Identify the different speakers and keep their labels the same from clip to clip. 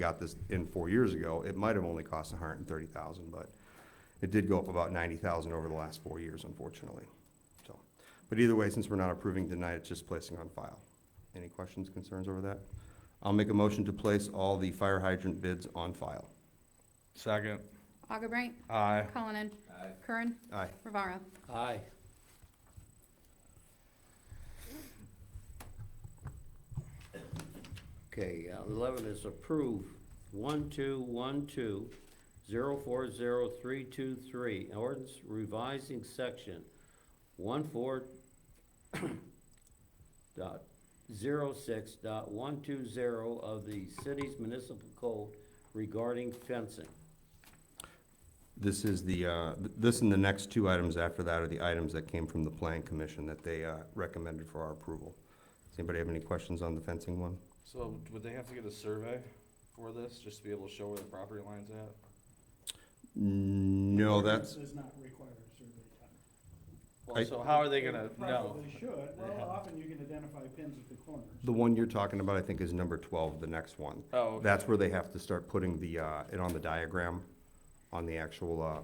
Speaker 1: got this in four years ago, it might have only cost a hundred and thirty thousand, but it did go up about ninety thousand over the last four years, unfortunately. So, but either way, since we're not approving tonight, it's just placing on file. Any questions, concerns over that? I'll make a motion to place all the fire hydrant bids on file.
Speaker 2: Second.
Speaker 3: Augubright,
Speaker 2: Aye.
Speaker 3: Cullinan. Curran,
Speaker 1: Aye.
Speaker 3: Rivara.
Speaker 4: Aye. Okay, uh, eleven is approve one two one two zero four zero three two three, ordinance revising section one four dot zero six dot one two zero of the city's municipal code regarding fencing.
Speaker 1: This is the, uh, th- this and the next two items after that are the items that came from the Plan Commission that they uh, recommended for our approval. Does anybody have any questions on the fencing one?
Speaker 2: So would they have to get a survey for this, just to be able to show where the property line's at?
Speaker 1: Mm, No,
Speaker 5: Ordinance
Speaker 1: that's,
Speaker 5: Does not require a survey done.
Speaker 1: I-
Speaker 2: Well, so how are they gonna know?
Speaker 5: Probably should, well, often you can identify pins at the corners.
Speaker 1: the one you're talking about, I think, is number twelve, the next one.
Speaker 2: Oh, okay.
Speaker 1: That's where they have to start putting the, uh, it on the diagram, on the actual, uh,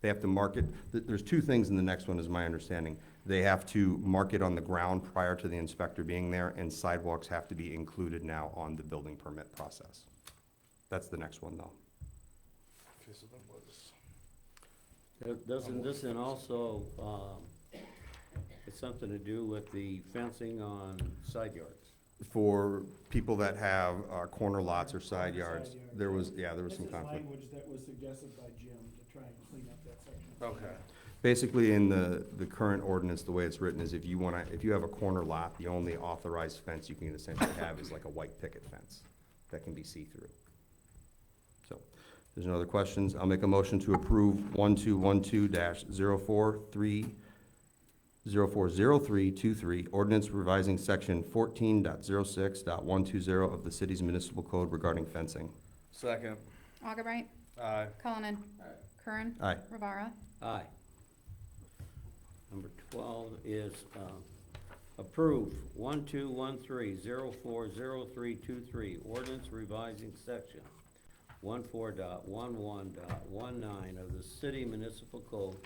Speaker 1: they have to mark it. Th- There's two things in the next one, is my understanding. They have to mark it on the ground prior to the inspector being there, and sidewalks have to be included now on the building permit process. That's the next one, though.
Speaker 2: Okay, so that was-
Speaker 4: Uh, Doesn't this and also, um, it's something to do with the fencing on side yards?
Speaker 1: For people that have, uh, corner lots or side
Speaker 5: Side
Speaker 1: yards,
Speaker 5: yard.
Speaker 1: there was, yeah, there was some
Speaker 5: This is
Speaker 1: conflict.
Speaker 5: language that was suggested by Jim to try and clean up that section.
Speaker 2: Okay,
Speaker 1: Basically, in the, the current ordinance, the way it's written is if you wanna, if you have a corner lot, the only authorized fence you can essentially have is like a white picket fence that can be see-through. So, if there's no other questions, I'll make a motion to approve one-two-one-two dash zero-four-three, zero-four-zero-three-two-three, ordinance revising section fourteen dot zero-six dot one-two-zero of the city's municipal code regarding fencing.
Speaker 2: second,
Speaker 3: Augubright,
Speaker 2: aye.
Speaker 3: Cullinan. Curran,
Speaker 1: Aye.
Speaker 3: Rivara.
Speaker 4: Aye. Number twelve is, um, approve one two one three zero four zero three two three, ordinance revising section one four dot one one dot one nine of the city municipal code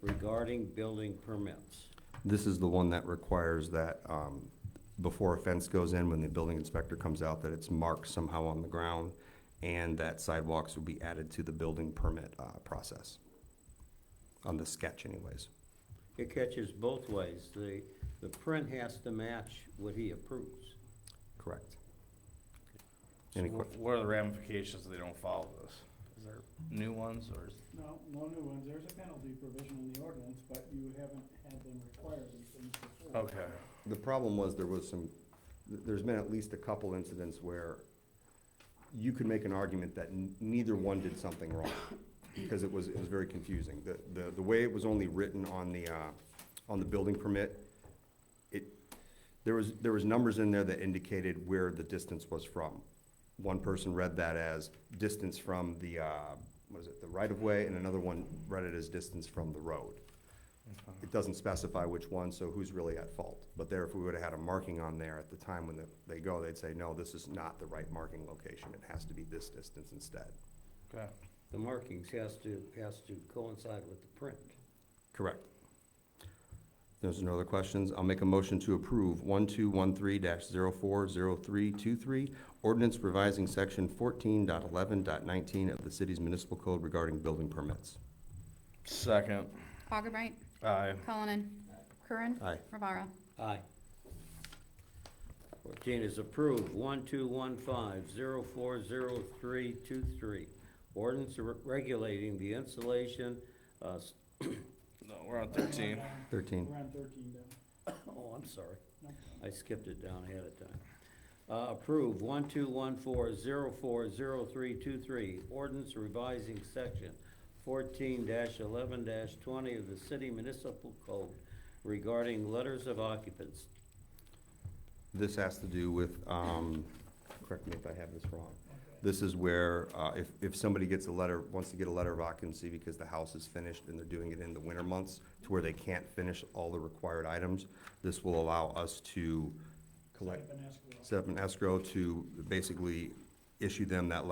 Speaker 4: regarding building permits.
Speaker 1: This is the one that requires that, um, before a fence goes in, when the building inspector comes out, that it's marked somehow on the ground, and that sidewalks will be added to the building permit, uh, process. On the sketch anyways.
Speaker 4: It catches both ways. The, the print has to match what he approves.
Speaker 1: Correct.
Speaker 2: So
Speaker 1: Any
Speaker 2: wh- what are the ramifications if they don't follow this? Is there new ones, or is?
Speaker 5: No, no new ones, there's a penalty provision in the ordinance, but you haven't had them require these things before.
Speaker 2: Okay,
Speaker 1: The problem was there was some, th- there's been at least a couple incidents where you could make an argument that n- neither one did something wrong, because it was, it was very confusing. The, the, the way it was only written on the, uh, on the building permit, it, there was, there was numbers in there that indicated where the distance was from. One person read that as distance from the, uh, what is it, the right-of-way, and another one read it as distance from the road. It doesn't specify which one, so who's really at fault? But there, if we would've had a marking on there at the time when the- they go, they'd say, no, this is not the right marking location, it has to be this distance instead.
Speaker 2: okay.
Speaker 4: The markings has to, has to coincide with the print.
Speaker 1: Correct. There's no other questions, I'll make a motion to approve one-two-one-three dash zero-four-zero-three-two-three, ordinance revising section fourteen dot eleven dot nineteen of the city's municipal code regarding building permits.
Speaker 2: Second,
Speaker 3: Augubright,
Speaker 2: aye.
Speaker 3: Cullinan. Curran,
Speaker 1: Aye.
Speaker 3: Rivara.
Speaker 4: Aye. Fourteen is approved, one two one five zero four zero three two three. Ordinance re- regulating the installation, uh, s-
Speaker 2: No, we're on thirteen.
Speaker 1: Thirteen.
Speaker 5: We're on thirteen now.
Speaker 4: oh, I'm sorry.
Speaker 5: No.
Speaker 4: I skipped it down ahead of time. Uh, approve one two one four zero four zero three two three, ordinance revising section fourteen eleven twenty of the city municipal code regarding letters of occupants.
Speaker 1: This has to do with, um, correct me if I have this wrong. This is where, uh, if, if somebody gets a letter, wants to get a letter of occupancy because the house is finished and they're doing it in the winter months to where they can't finish all the required items, this will allow us to collect,
Speaker 5: Type an escrow.
Speaker 1: set up an escrow to basically issue them that letter